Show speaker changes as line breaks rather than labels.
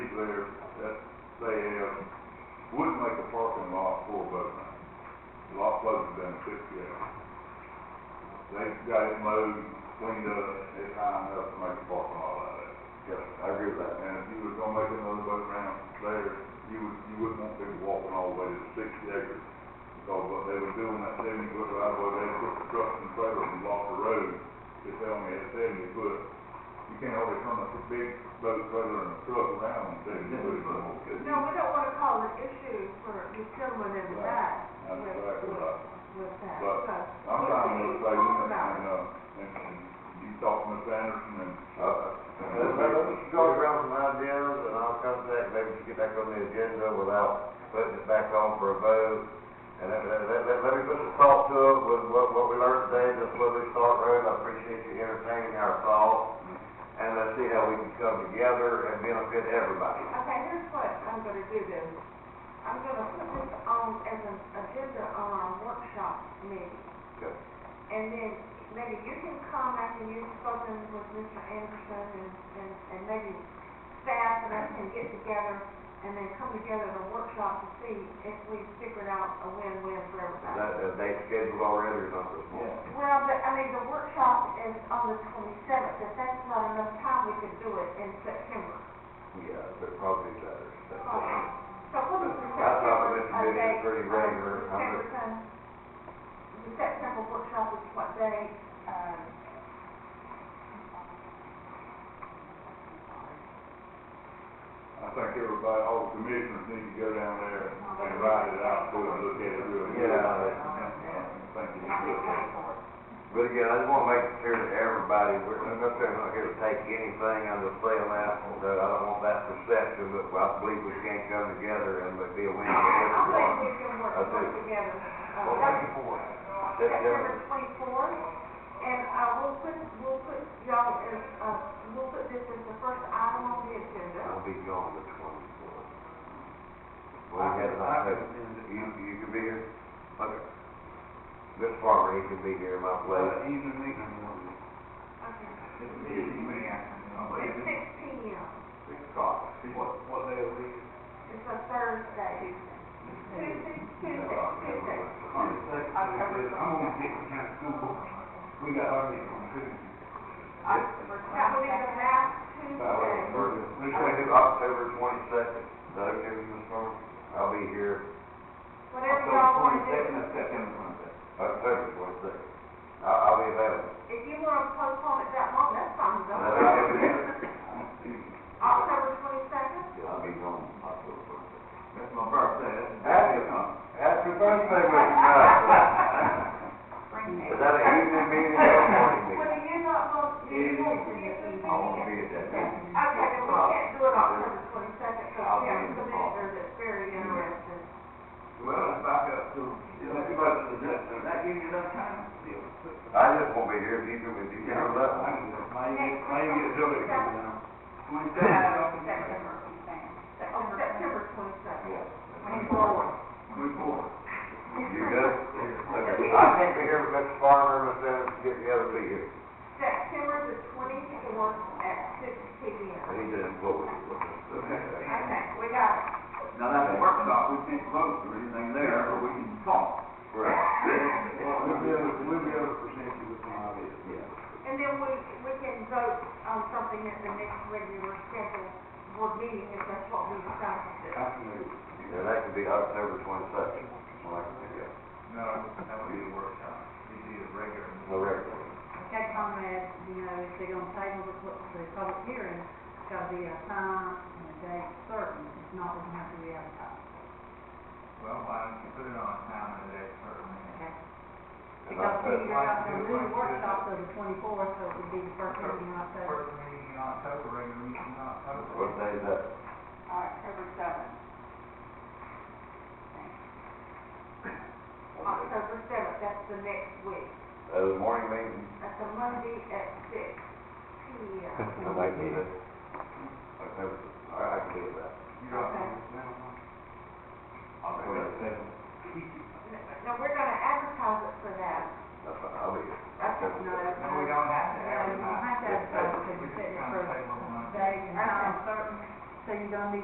they have, would make a parking lot for boating. The lot closed down fifty-eight. They got it mowed, cleaned up, it's high enough to make a parking lot out of it.
Yes, I agree with that.
And if you was gonna make another boat ramp there, you would, you wouldn't want people walking all the way to the sixty acres. Because what they were doing that seventy foot right away, they put the trucks and trailers and blocked the road, if they only had seventy foot. You can't hardly turn a big boat trailer and a truck around and say, you know, it's.
No, we don't wanna call an issue for the gentleman in the back
That's exactly right.
with that, so.
But I'm trying to say, you know, and, uh, and, and you talk to Miss Anderson and, uh.
Let's, let's go around some ideas, and I'll come back, maybe we can get back on the agenda without putting it back on for a vote. And let, let, let- let, let me put some thought to it, with what, what we learned today, this Woodley Start Road, I appreciate you entertaining our thoughts. And let's see how we can come together and benefit everybody.
Okay, here's what I'm gonna do then. I'm gonna put this on as an agenda on our workshop meeting.
Good.
And then maybe you can come after you've spoken with Mr. Anderson and, and, and maybe staff and us can get together and then come together in a workshop to see if we figured out a win-win for
Is
everybody.
that, that date scheduled already or not this morning?
Well, but, I mean, the workshop is on the twenty-seventh, if that's not enough time, we could do it in September.
Yeah, but probably better. That's it.
So what is the
I thought
September,
this
uh,
meeting was
date?
pretty regular.
Uh,
I'm
September
just-
time? The September workshop is what day? Um,
I think everybody, all the commissioners need to go down there and write it out, so and look at it real good.
Yeah.
I think you should look at it.
But again, I just wanna make it clear to everybody, we're, I'm not saying I'm not here to take anything, I'm just saying that, that I don't want that perception, that I believe we can come together and be a win for
I think we
everyone.
can work,
I do.
work together. Uh,
Well,
that's
thank you for it.
September
September,
twenty-fourth, and, uh, we'll put, we'll put y'all as, uh, we'll put this as the first item on the agenda.
I'll be gone the twenty-fourth. Well, you had not had, you, you could be here, okay. Miss Farmer, he could be here in my place. Oh,
Okay. It's six P M.
Six o'clock.
It's a Thursday. Tuesday, Tuesday, Tuesday. That would be the last Tuesday.
We can do October twenty-second, is that okay with you, Miss Farmer? I'll be here
Whatever y'all want to do.
October twenty-second. I'll, I'll be available.
If you want to postpone it that long, that's fine. though.
That's okay.
October twenty-second?
I'll be gone October twenty-second.
That's my birthday.
Happy birthday, Mr. Johnson. Is that an evening meeting or a morning
Well,
meeting?
you're not going, you're going to be at
I won't be at that meeting.
Okay, then we can't do it October twenty-second, because
I'll
we
be in the
have a
hall.
commissioner that's very interested.
Well, it's back up to, that gives you enough time still.
I just won't be here if you can, if you can have that one.
September. Oh, September twenty-second.
Twenty-four.
You good? Okay. I can't be here with Mr. Farmer, Miss Anderson, get the other two here.
September the twenty-fourth at six P M.
I need to employ you.
Okay, we got it.
Now, that's a workshop, we can't vote or anything there, but we can talk.
Right.
And then we, we can vote on something at the next regular scheduled board meeting, if that's what we decide to do.
Yeah, that could be October twenty-second. Well, I can pick up.
No, that would be a workshop. It'd be a regular.
No record.
Okay, comrades, you know, if they're gonna table the, pu- the public hearing, it's gotta be a time and a date certain, if not, we're gonna have to re-advertise.
Well, why don't you put it on time and date certain?
Okay.
And
Because
I'll
we
put-
have to do the workshop till the twenty-fourth, so it would be the first meeting in October.
First meeting in October, regular meeting in October.
What day is that?
October seventh.
October seventh, that's the next week.
Uh, the morning meeting?
That's a Monday at six P M.
I might need it. October, all right, I can do that.
You don't.
I'll be there.
Now, we're gonna advertise it for that.
That's fine, I'll be here.
That's
Okay.
No, that's.
No, we don't have to
No, you don't have
advertise.
to advertise, because
We
you're
just
setting it
kind
for
of table one.
days and time certain, so you're gonna be